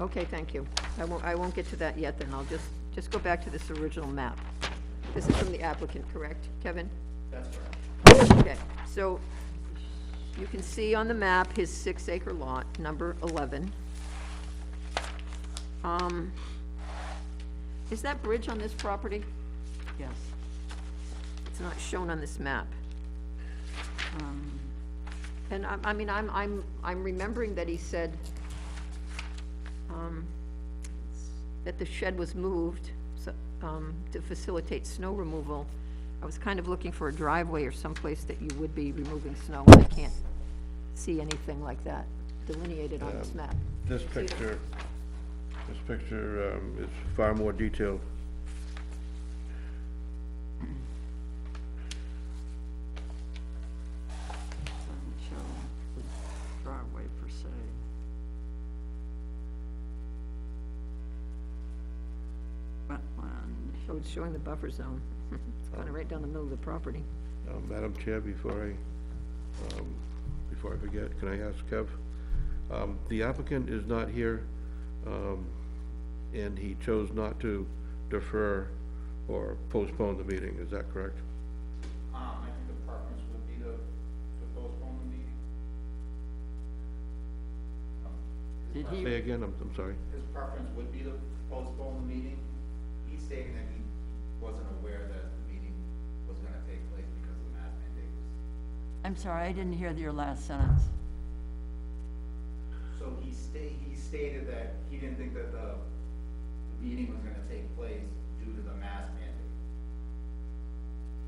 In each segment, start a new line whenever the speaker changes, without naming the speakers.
Okay, thank you. I won't, I won't get to that yet, then. I'll just, just go back to this original map. This is from the applicant, correct, Kevin? That's correct. Okay, so you can see on the map his six-acre lot, number 11. Um, Is that bridge on this property?
Yes.
It's not shown on this map.
Um,
And I, I mean, I'm, I'm, I'm remembering that he said, um, that the shed was moved, so, um, to facilitate snow removal. I was kind of looking for a driveway or someplace that you would be removing snow, and I can't see anything like that delineated on this map.
Um, This picture, this picture um, is far more detailed.
doesn't show the driveway per se. Wetland.
So Oh, it's showing the buffer zone. It's kind of right down the middle of the property.
Um, Madam Chair, before I, um, before I forget, can I ask Kev? Um, The applicant is not here, um, and he chose not to defer or postpone the meeting, is that correct?
Um, I think the preference would be to, to postpone the meeting.
Did he,
Say again, I'm, I'm sorry.
His preference would be to postpone the meeting. He's stating that he wasn't aware that the meeting was gonna take place because the mask mandate was.
I'm sorry, I didn't hear your last sentence.
So he sta- he stated that he didn't think that the, the meeting was gonna take place due to the mask mandate.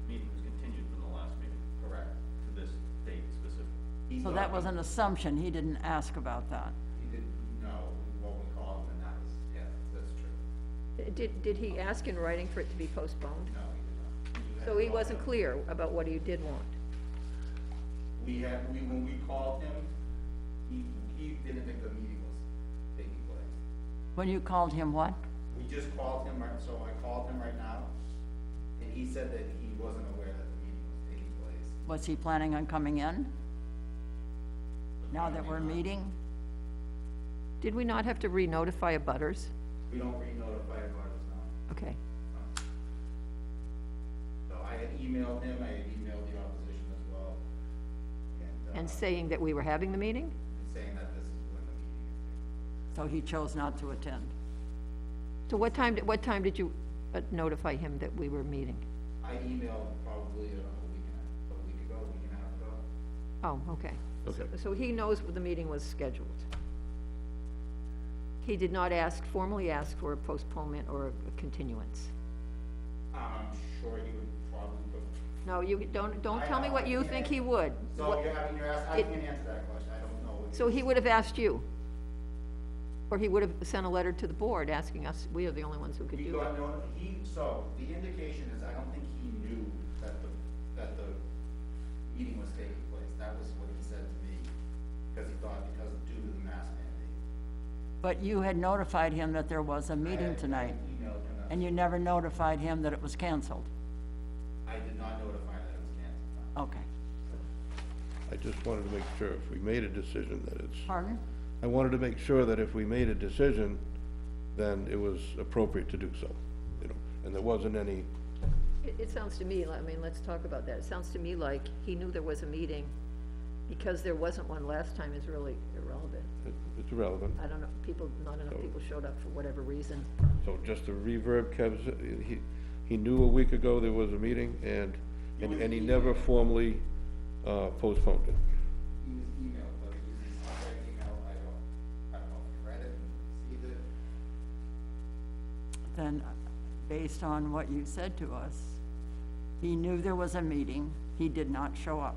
meeting was continued from the last meeting
Correct.
to this date specific.
He's
So
not-
that was an assumption, he didn't ask about that.
He didn't know what we called him, and that was, yeah, that's true.
Did, did he ask in writing for it to be postponed?
No, he did not. You had
So he
called
wasn't
him.
clear about what he did want.
We had, we, when we called him, he, he didn't think the meeting was taking place.
When you called him what?
We just called him, right, so I called him right now, and he said that he wasn't aware that the meeting was taking place.
Was he planning on coming in? Now that we're meeting?
Did we not have to re-notify abutters?
We don't re-notify abutters now,
Okay.
so I had emailed him, I had emailed the opposition as well, and, uh,
And saying that we were having the meeting?
saying that this is when the meeting is taking.
So he chose not to attend.
So what time, did- what time did you uh, notify him that we were meeting?
I emailed probably uh, a week and a, a week ago, a week and a half ago,
Oh, okay.
Okay.
So he knows the meeting was scheduled. He did not ask, formally ask for a postponement or a continuance.
Um, I'm sure he would probably, go-
No, you, don't, don't tell me what you think he would.
so you're having, you're asking, I
it-
can't answer that question, I don't know.
So he would have asked you? Or he would have sent a letter to the board asking us, we are the only ones who could
He
do it?
got no, he, so, the indication is, I don't think he knew that the, that the meeting was taking place, that was what he said to me, because he thought, because due to the mask mandate.
But you had notified him that there was a
I-
meeting
I
tonight,
emailed him, that-
and you never notified him that it was canceled.
I did not notify that it was canceled.
Okay.
I just wanted to make sure if we made a decision that it's
Pardon?
I wanted to make sure that if we made a decision, then it was appropriate to do so, you know, and there wasn't any,
It, it sounds to me, li- I mean, let's talk about that. It sounds to me like he knew there was a meeting. Because there wasn't one last time is really irrelevant.
it- it's irrelevant.
I don't know, people, not enough people showed up for whatever reason.
So just to reverb Kev's, he, he knew a week ago there was a meeting and, and and he never formally uh, postponed it.
He was emailed, but he was, I read the email, I don't, I don't know if he read it, and received it.
Then, based on what you said to us, he knew there was a meeting, he did not show up.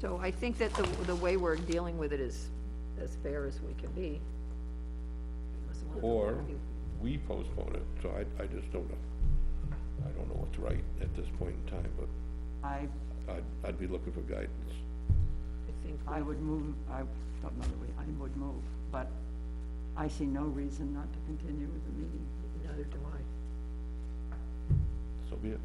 So I think that the, the way we're dealing with it is as fair as we can be. Unless one of them-
Or we postponed it, so I, I just don't know. I don't know what's right at this point in time, but
I,
I'd, I'd be looking for guidance.
I think,
I
we-
would move, I don't know that we, I would move, but I see no reason not to continue with the meeting.
neither do I.
So be it.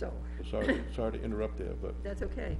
So,
Sorry, sorry to interrupt there, but
that's okay.